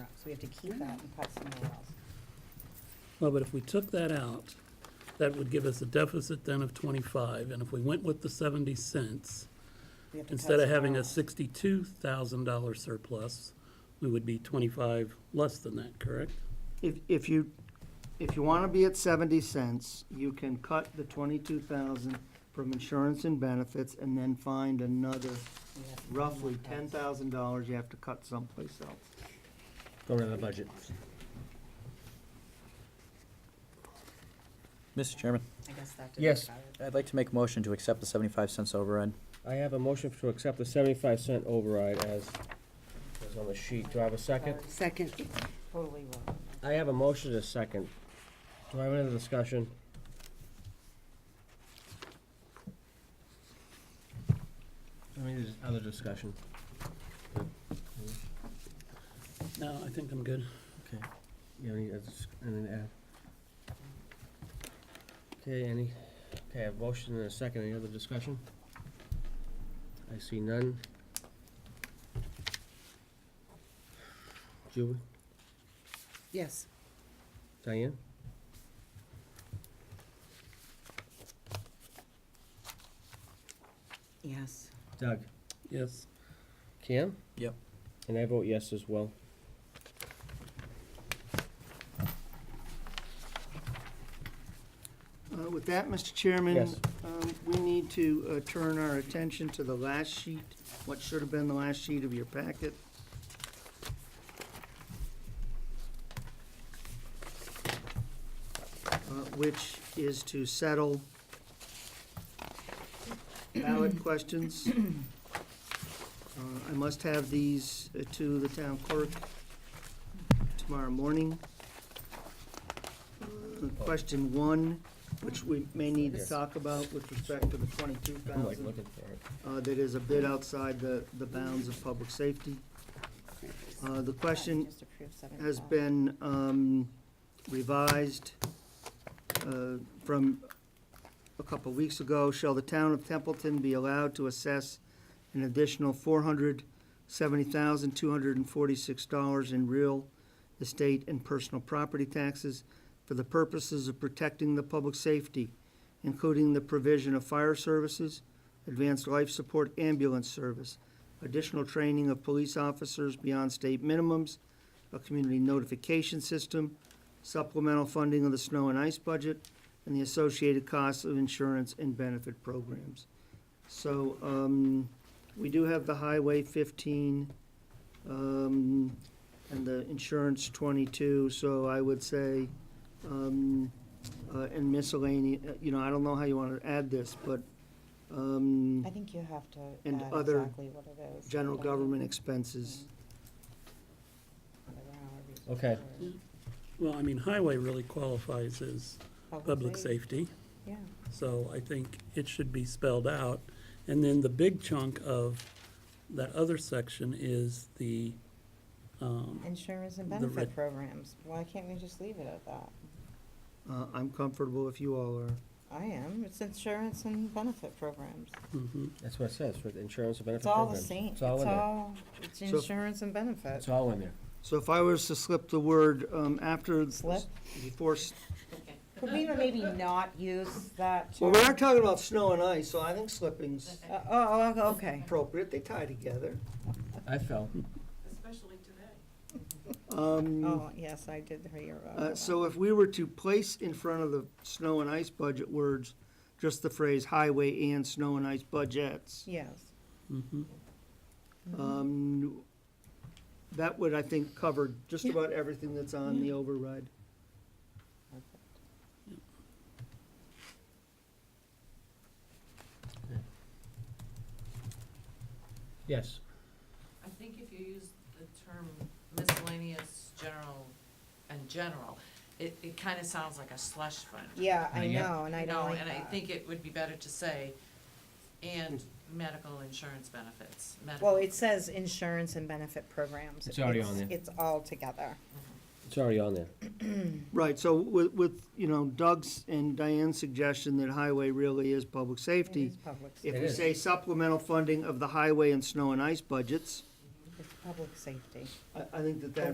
So we have to keep that and cut somewhere else. Well, but if we took that out, that would give us a deficit then of 25, and if we went with the 70 cents, We have to cut instead of having a somewhere else. $62,000 surplus, we would be 25 less than that, correct? If, if you, if you want to be at seventy cents, you can cut the twenty-two thousand from insurance and benefits and then find another We have to cut roughly somewhere ten else. thousand dollars you have to cut someplace else. Go to the budget. Mr. Chairman, I guess that didn't Yes. cut it. I'd like to make a motion to accept the 75 cents override. I have a motion to accept the seventy-five cent override as, as on the sheet. Do I have a second? Sorry. Second, Totally wrong. I have a motion to second. Do I have any other discussion? Any other discussion? No, I think I'm good. Yeah, any, that's- and then add. Okay, any, okay, a motion and a second, any other discussion? I see none. Julie, yes. Diane? Yes. Doug? Yes. Cam? Yep. And I vote yes as well. Uh, With that, Mr. Chairman. Yes. um, We need to uh, turn our attention to the last sheet, what should have been the last sheet of your packet. uh, Which is to settle ballot questions. Uh, I must have these uh, to the town clerk tomorrow morning. Uh, Question one which we may need to Yes. talk about with respect to the twenty-two I'm like thousand, looking for it. uh, that is a bit outside the, the bounds of public safety. Uh, the question Just approve seven has o'clock. been, um, revised, uh, from a couple weeks ago. Shall the town of Templeton be allowed to assess an additional four hundred seventy thousand, two hundred and forty-six dollars in real estate and personal property taxes for the purposes of protecting the public safety, including the provision of fire services, advanced life support ambulance service, additional training of police officers beyond state minimums, a community notification system, supplemental funding of the snow and ice budget, and the associated costs of insurance and benefit programs. So, um, we do have the Highway fifteen, um, and the insurance twenty-two, so I would say, um, uh, and miscellaneous, uh, you know, I don't know how you wanna add this, but, um, I think you have to And add other exactly what it is. mm-hmm. general Don't- government expenses. I don't know how these Okay. are. Well, I mean, highway really qualifies as public safety, Yeah, so I think it should be spelled out. And then the big chunk of that other section is the, um, insurance and The benefit red- programs. Why can't we just leave it at that? Uh, I'm comfortable if you all are. I am. It's insurance and benefit programs. mhm. That's what it says, for the insurance and benefit It's all program. the same. It's all in there. all, it's So- insurance and benefit. It's all in there. So if I was to slip the word, um, after. Slip? Before, s- Could we maybe not use that? well, we term? are talking about snow and ice, so I think slipping's Uh, Oh, oh, okay. appropriate, they tie together. I fell. Um, Oh, yes, I did hear about Mm. uh, that. so if we were to place in front of the snow and ice budget words, just the phrase highway and snow and ice budgets, Yes. Mhm. um, that would, I think, cover just Yeah. about everything that's on the override. Yes. I think if you use the term miscellaneous, general, and general, it, it kind of sounds like a slush fund. Yeah, I Yeah. know, and I You don't know, like and I that. think it would be better to say, and medical insurance benefits, medical. Well, it says insurance and benefit programs. It's already on there. It's all together. It's already on there. Right, so with, with, you know, Doug's and Diane's suggestion that highway really is public It safety, is public, sa- If It we is. say supplemental funding of the highway and snow and ice budgets, it's public safety. I, I think that that